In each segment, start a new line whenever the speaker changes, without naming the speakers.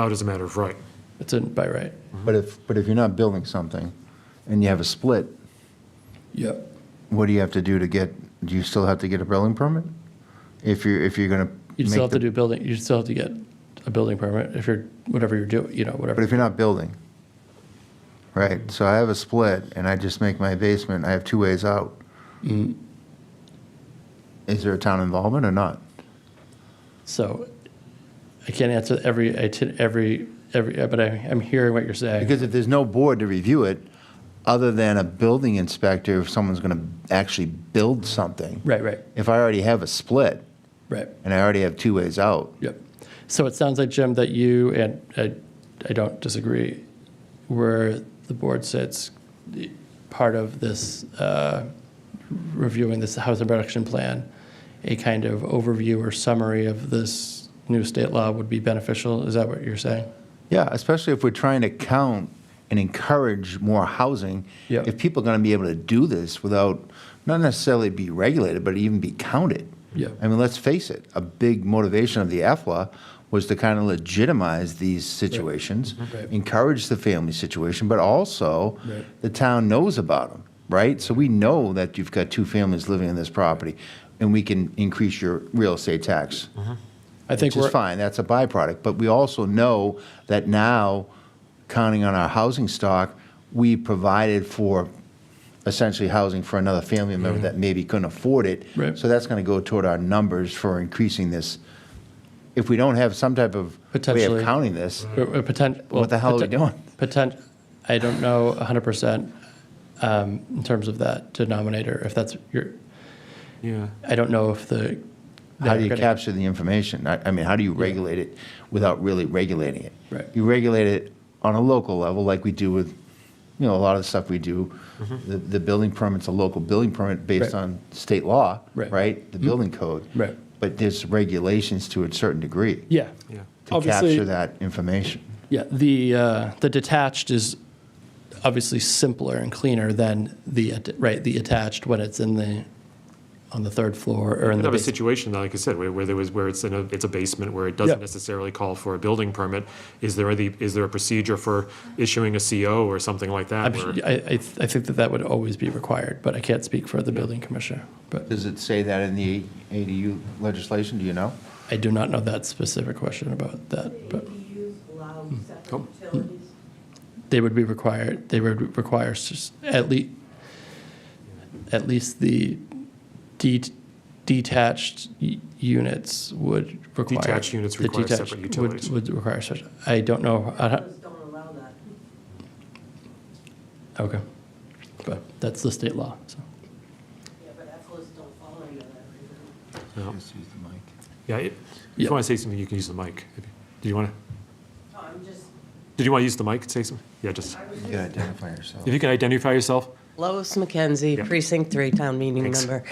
out as a matter of right.
It's in by right.
But if, but if you're not building something and you have a split,
Yep.
what do you have to do to get, do you still have to get a building permit? If you're, if you're gonna.
You
make
still have
the-
to do building, you still have to get a building permit if you're, whatever you're doing, you know,
But
whatever.
if you're not building, right, so I have a split and I just make my basement, I have two ways out.
Mm.
Is there a town involvement or not?
So I can't answer every, iti- every, every, but I, I'm hearing what you're saying.
Because if there's no board to review it, other than a building inspector, if someone's gonna actually build something.
Right, right,
If I already have a split
right.
and I already have two ways out,
Yep. So it sounds like, Jim, that you and I, I don't disagree, where the board sits, the- part of this uh, reviewing this housing production plan, a kind of overview or summary of this new state law would be beneficial. Is that what you're saying?
Yeah, especially if we're trying to count and encourage more housing.
Yep.
If people are going to be able to do this without, not necessarily be regulated, but even be counted.
Yep.
I mean, let's face it, a big motivation of the EFLA was to kind of legitimize these situations,
Mm-hmm. Right.
encourage the family situation, but also
Right.
the town knows about them, right? So we know that you've got two families living in this property, and we can increase your real estate tax
I think
which
we're,
is fine. That's a byproduct. But we also know that now, counting on our housing stock, we provided for essentially housing for another family member that maybe couldn't afford it.
Mm-hmm. Right.
So that's going to go toward our numbers for increasing this. If we don't have some type of way
Potentially.
of counting this,
we're, we're potent- well,
the hell are we
poten-
doing?
Potent, I don't know 100% um, in terms of that denominator, if that's your,
Yeah.
I don't know if the.
how do
they're
you
gonna-
capture the information? I, I mean, how do you regulate it without really regulating it?
Right.
You regulate it on a local level, like we do with, you know, a lot of the stuff we do. The, the building permit's a local building permit based
Mm-hmm. Right.
on state law,
Right. Mm-hmm.
right? The building code.
Right.
But there's regulations to a certain degree
Yeah.
Yeah.
to
Obviously-
capture that information.
Yeah, the, uh, the detached is obviously simpler and cleaner than the, at- right, the attached when it's in the, on the third floor or in
Could
the
have a
basement.
situation, like I said, where, where there was, where it's in a, it's a basement, where it doesn't
Yeah.
necessarily call for a building permit. Is there the, is there a procedure for issuing a CO or something like that?
I'm sure-
where-
I, I, th- I think that that would always be required, but I can't speak for the building commissioner. But
Does it say that in the ADU legislation? Do you know?
I do not know that specific question about that, but Hmm. Oh,
ADUs allow separate utilities?
they would be required, they would require s- at least, at least the de- detached y- units would require.
Detached units
the
require
detached
separate
would-
utilities.
Would require such, I don't know, I don't-
Those don't allow that.
okay. But that's the state law, so.
Yeah, but EFLAs don't follow any of that right now.
No.
Just use the mic.
Yeah, if
Yeah.
you want to say something, you can use the mic. Did you want to,
No, I'm just,
did you want to use the mic and say something? Yeah, just,
I was
You gotta identify yourself.
if you can identify yourself.
Lois McKenzie,
Yeah.
Precinct 3 Town Meeting
Thanks.
Member.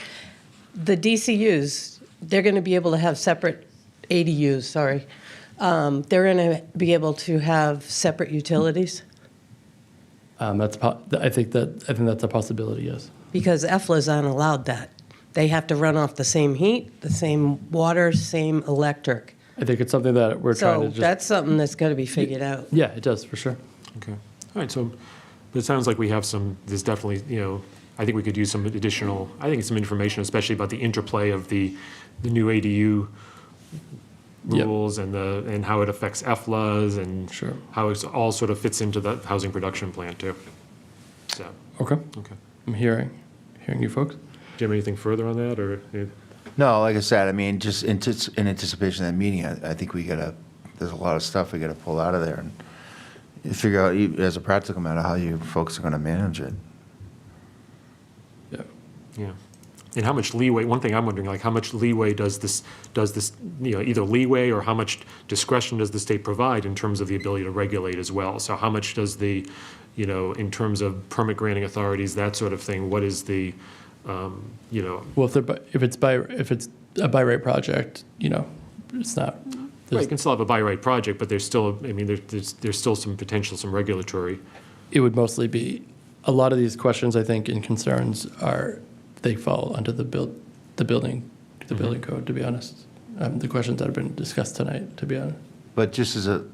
The DCUs, they're going to be able to have separate, ADUs, sorry. Um, They're going to be able to have separate utilities?
Um, that's, po- I think that, I think that's a possibility, yes.
Because EFLAs aren't allowed that. They have to run off the same heat, the same water, same electric.
I think it's something that we're trying to
So
just.
that's something that's got to be figured out.
Yeah, it does, for sure.
Okay. All right, so, but it sounds like we have some, there's definitely, you know, I think we could use some additional, I think some information, especially about the interplay of the, the new ADU
Yep.
rules and the, and how it affects EFLAs and
Sure.
how it's all sort of fits into the housing production plan too. So,
Okay,
okay.
I'm hearing, hearing you folks.
Do you have anything further on that or?
No, like I said, I mean, just in tis- in anticipation of that meeting, I I think we gotta, there's a lot of stuff we gotta pull out of there and figure out, you- as a practical matter, how you folks are gonna manage it.
Yeah.
Yeah. And how much leeway, one thing I'm wondering, like, how much leeway does this, does this, you know, either leeway or how much discretion does the state provide in terms of the ability to regulate as well? So how much does the, you know, in terms of permit granting authorities, that sort of thing, what is the, um, you know,
Well, if they're, by- if it's by, if it's a by right project, you know, it's not,
you
there's-
can still have a by right project, but there's still, I mean, there- there's, there's still some potential, some regulatory.
it would mostly be, a lot of these questions, I think, and concerns are, they fall under the build, the building, the building code, to be honest. Um, the questions that have been discussed tonight, to be honest.
But just as a,